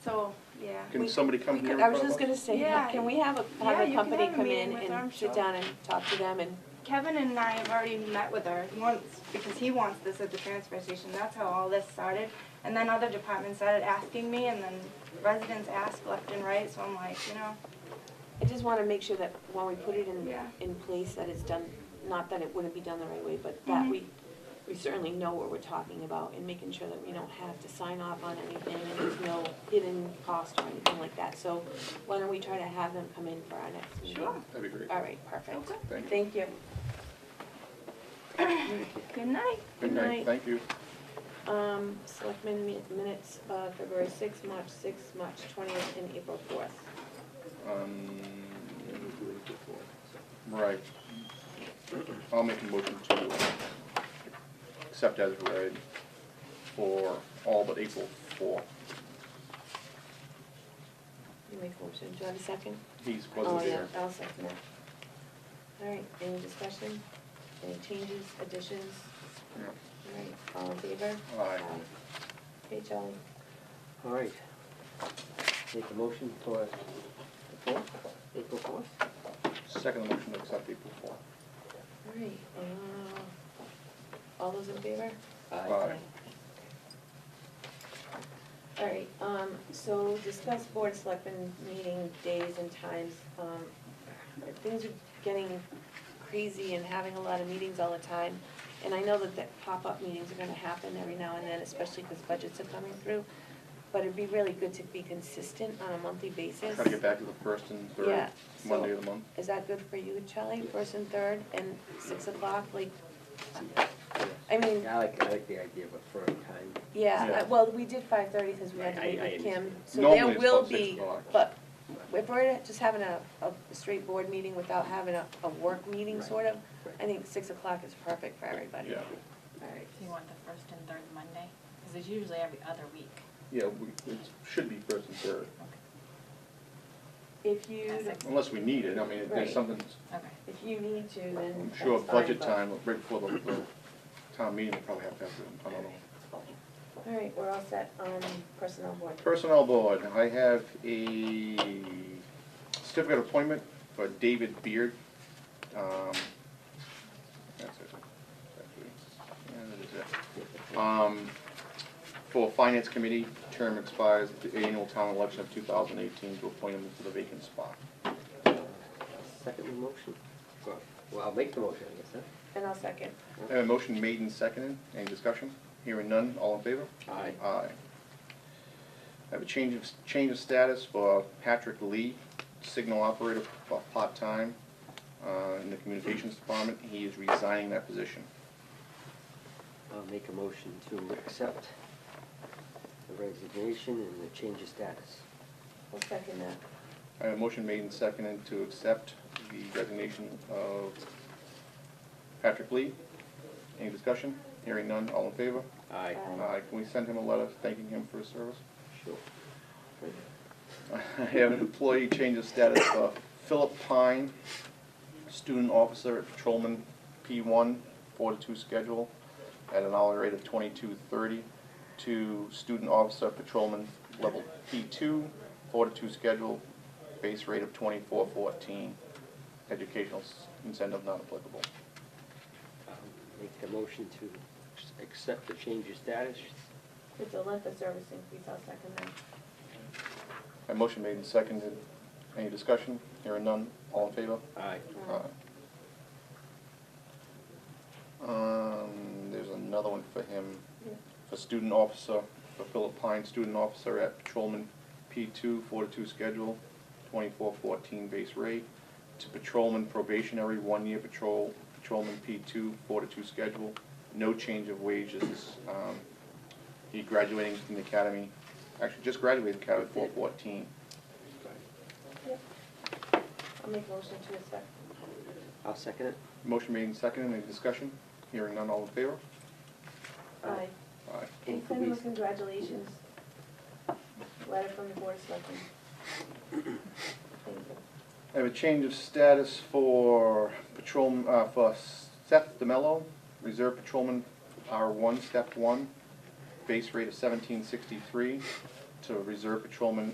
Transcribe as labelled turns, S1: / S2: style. S1: Yeah.
S2: Can
S3: We-
S2: somebody come here?
S3: I
S2: in
S3: was
S2: front of
S3: just gonna
S2: us?
S3: say,
S1: Yeah.
S3: can we have a,
S1: Yeah,
S3: have a
S1: you can
S3: company
S1: have a
S3: come
S1: meeting
S3: in
S1: with
S3: and sit
S1: Armstrong.
S3: down and talk to them and,
S1: Kevin and I have already met with her once because he wants this at the transfer station. That's how all this started. And then other departments started asking me and then residents asked left and right, so I'm like, you know,
S3: I just wanna make sure that when we put it in,
S1: Yeah.
S3: in place, that it's done, not that it wouldn't be done the right way, but that
S1: Mhm.
S3: we, we certainly know what we're talking about and making sure that we don't have to sign off on anything and there's no hidden cost or anything like that. So why don't we try to have them come in for our next meeting?
S1: Sure.
S2: That'd be great.
S3: All right, perfect.
S1: Okay.
S2: Thank you.
S3: Thank you.
S1: good night.
S2: Good night, thank you.
S3: Um, selectmen mi- minutes, uh, February sixth, March sixth, March twentieth, and April fourth.
S2: Um, Right. I'll make a motion to uh, accept as read for all but April four.
S3: You make a motion, do I have a second?
S2: He's wasn't there.
S3: Oh, yeah, I'll second it. All right, any discussion? Any changes, additions? All right, all in favor?
S2: Aye.
S3: Okay, Charlie,
S4: All right. Make a motion for the fourth, April fourth?
S2: Second motion to accept April four.
S3: all right, uh, all those in favor?
S2: Aye.
S3: All right, um, so discuss board selectmen meeting days and times. Um, Things are getting crazy and having a lot of meetings all the time. And I know that the pop-up meetings are gonna happen every now and then, especially because budgets are coming through. But it'd be really good to be consistent on a monthly basis.
S2: Try to get back to the first and
S3: Yeah,
S2: third
S3: so-
S2: Monday of the month.
S3: Is that good for you, Charlie, first and third, and six o'clock, like, I mean,
S4: Yeah, I like, I like the idea of a firm time.
S3: Yeah,
S2: Yeah.
S3: uh, well, we did five thirty because we had to
S4: Right,
S3: meet
S4: I- I
S3: with Kim,
S4: understand.
S3: so there
S2: Normally it's
S3: will
S2: about six
S3: be,
S2: o'clock.
S3: but if we're just having a, a straight board meeting without having a, a work meeting
S4: Right.
S3: sort of,
S4: Right.
S3: I think six o'clock is perfect for everybody.
S2: Yeah,
S3: All right,
S5: Do you want the first and third Monday? Because it's usually every other week.
S2: yeah, we, it should be first and third,
S3: if you,
S5: At six.
S2: unless we need it, I mean, if
S3: Right.
S2: there's something,
S5: Okay.
S3: if you need to, then
S2: I'm sure
S3: that's fine,
S2: budget
S3: but-
S2: time, right before the, the town meeting, we'll probably have to have it, I don't know.
S3: All right, we're all set on personnel board.
S2: Personnel Board, I have a certificate appointment for David Beard. Um, That's it. Actually, yeah, that is it. Um, For Finance Committee, term expires at the annual town election of 2018 to appoint him to the vacant spot.
S4: Second motion? Well, Well, I'll make the motion, I guess, huh?
S3: And I'll second.
S2: I have a motion made and seconded. Any discussion? Hearing none, all in favor?
S4: Aye.
S2: Aye. I have a change of, change of status for Patrick Lee, signal operator, uh, part-time, uh, in the communications department. He is resigning that position.
S4: I'll make a motion to accept the resignation and the change of status.
S3: I'll second that.
S2: I have a motion made and seconded to accept the resignation of Patrick Lee. Any discussion? Hearing none, all in favor?
S4: Aye.
S3: Uh,
S2: Aye. Can we send him a letter thanking him for his service?
S4: Sure.
S2: I have an employee change of status for Philip Pine, student officer at patrolman P one, four to two schedule, at an hourly rate of twenty-two thirty, to student officer patrolman level P two, four to two schedule, base rate of twenty-four fourteen, educational s- incentive not applicable.
S4: I'll Make the motion to s- accept the change of status.
S3: With the length of service increase, I'll second that.
S2: My motion made and seconded. Any discussion? Hearing none. All in favor?
S4: Aye.
S2: Aye. Um, there's another one for him,
S3: Yeah.
S2: for student officer, for Philip Pine, student officer at patrolman P two, four to two schedule, twenty-four fourteen base rate, to patrolman probationary, one-year patrol, patrolman P two, four to two schedule, no change of wages, um, he graduating from the academy, actually just graduated the academy, four fourteen.
S3: I'll make a motion to accept.
S4: I'll second it.
S2: Motion made and seconded, any discussion? Hearing none, all in favor?
S3: Aye.
S2: Aye.
S3: And
S4: And could
S3: send him
S4: we-
S3: a congratulations letter from the board of selectmen. Thank you.
S2: I have a change of status for patrol, uh, for Seth DeMello, Reserve Patrolman R1, Step 1, base rate of 1763, to Reserve Patrolman